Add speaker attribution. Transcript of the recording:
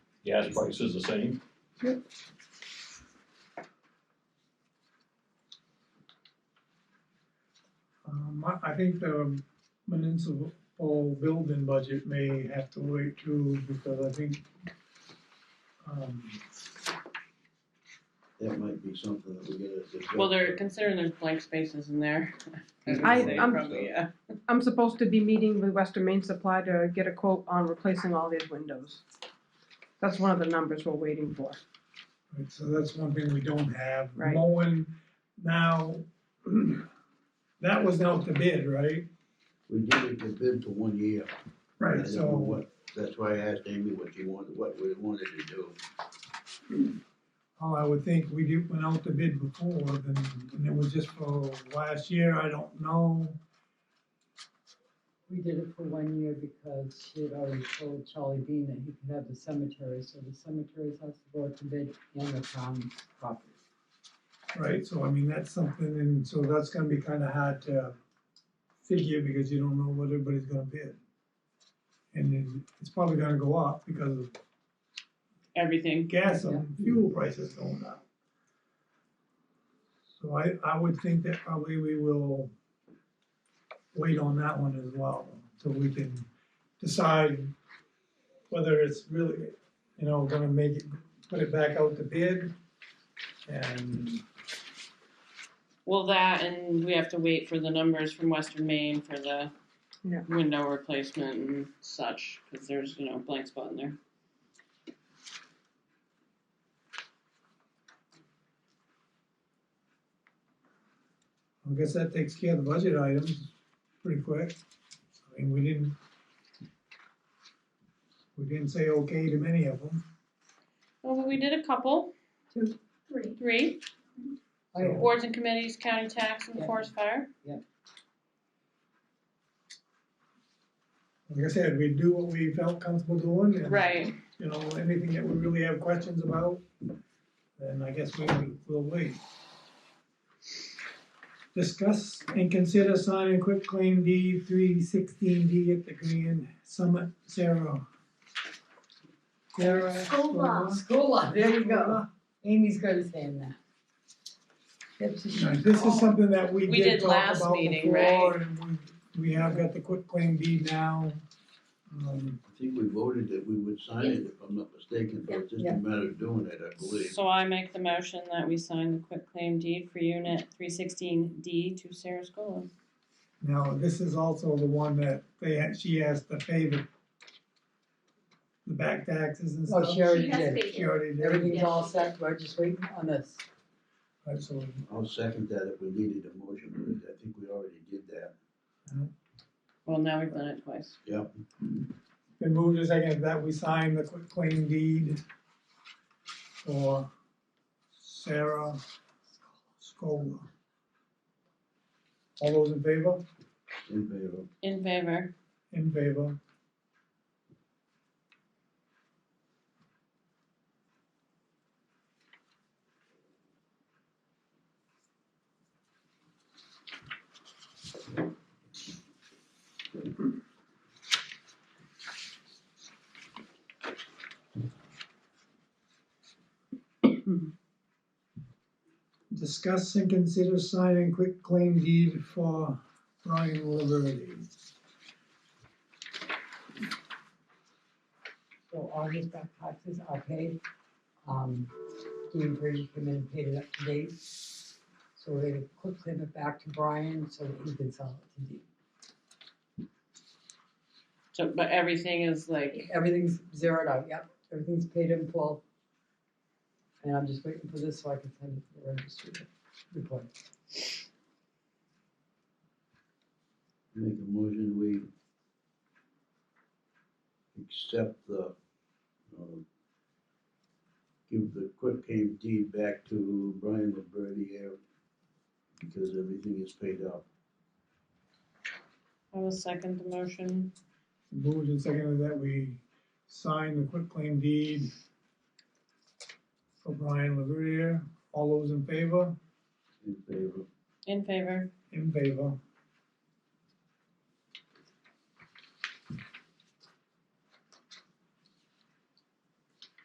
Speaker 1: gas price is the same.
Speaker 2: Yep.
Speaker 3: Um, I, I think the municipal building budget may have to wait too, because I think, um,
Speaker 2: That might be something that we get as a.
Speaker 4: Well, they're considering there's blank spaces in there. would
Speaker 5: I-
Speaker 4: say
Speaker 5: I'm-
Speaker 4: probably, Yeah,
Speaker 5: I'm supposed to be meeting with Western Main Supply to get a quote on replacing all these windows. That's one of the numbers we're waiting for.
Speaker 3: Right, so that's one thing we don't have.
Speaker 5: Right.
Speaker 3: Mowing, now, that was out to bid, right?
Speaker 2: We did it to bid for one year. I
Speaker 3: Right,
Speaker 2: don't know
Speaker 3: so,
Speaker 2: what, that's why I asked Amy what she wanted, what we wanted to do.
Speaker 3: oh, I would think we did, went out to bid before, then, and it was just for last year, I don't know.
Speaker 6: We did it for one year because she had already told Charlie Bean that he could have the cemetery, so the cemeteries has to go out to bid and the town property.
Speaker 3: Right, so I mean, that's something, and so that's gonna be kinda hard to figure because you don't know what everybody's gonna bid. And then it's probably gonna go up because of
Speaker 4: everything.
Speaker 3: gas and fuel prices going up. So I, I would think that probably we will wait on that one as well, so we can decide whether it's really, you know, gonna make it, put it back out to bid. And,
Speaker 4: Well, that and we have to wait for the numbers from Western Maine for the
Speaker 5: Yeah.
Speaker 4: window replacement and such, because there's, you know, blank spot in there.
Speaker 3: I guess that takes care of the budget items pretty quick. I mean, we didn't, we didn't say okay to many of them.
Speaker 4: Well, we did a couple,
Speaker 7: Three.
Speaker 4: three,
Speaker 3: I don't-
Speaker 4: boards and committees, county tax and
Speaker 6: Yeah.
Speaker 4: forest fire.
Speaker 3: Like I said, we do what we felt comfortable doing and.
Speaker 4: Right,
Speaker 3: you know, anything that we really have questions about, then I guess we will, we'll wait. Discuss and consider signing quick claim deed three sixteen D at the Grand Summit, Sarah. Sarah.
Speaker 7: School bus.
Speaker 6: School lot, there you go. Amy's gonna say in that. That's what she-
Speaker 3: Now, This is something that we
Speaker 4: We
Speaker 3: did
Speaker 4: did
Speaker 3: talk
Speaker 4: last
Speaker 3: about
Speaker 4: meeting,
Speaker 3: before, and we, we have got the quick claim deed now. Um,
Speaker 2: I think we voted that we would sign it, if I'm not mistaken, but it's just a
Speaker 6: Yeah.
Speaker 2: matter of doing it, I believe.
Speaker 4: so I make the motion that we sign the quick claim deed for unit three sixteen D to Sarah Scola.
Speaker 3: Now, this is also the one that they, had- she has to pay the, the back taxes and stuff.
Speaker 6: Oh, she already
Speaker 7: She has
Speaker 6: did.
Speaker 7: paid
Speaker 3: She
Speaker 7: it.
Speaker 3: already did.
Speaker 6: Everything's all set, we're just waiting on this.
Speaker 3: Absolutely.
Speaker 2: I'll second that if we needed a motion, but I think we already did that.
Speaker 4: Well, now we've done it twice.
Speaker 3: Been moved to second that we sign the quick claim deed for Sarah Scola. All those in favor?
Speaker 2: In favor.
Speaker 4: In favor,
Speaker 3: In favor. Discuss and consider signing quick claim deed for Brian Liberty.
Speaker 6: So all his back taxes are paid. Um, Dean Brady came in and paid it up to date. So we're gonna quick claim it back to Brian so that he can sell it to Dean.
Speaker 4: so, but everything is like,
Speaker 6: Everything's zeroed out, yep, everything's paid in full. And I'm just waiting for this so I can send it to the registry report.
Speaker 2: Make a motion, we accept the, uh, give the quick claim deed back to Brian Liberty here because everything is paid up.
Speaker 4: I will second the motion.
Speaker 3: Moved and seconded that we sign the quitclaim deed for Brian Laverier. All those in favor?
Speaker 2: In favor.
Speaker 4: In favor,
Speaker 3: In favor.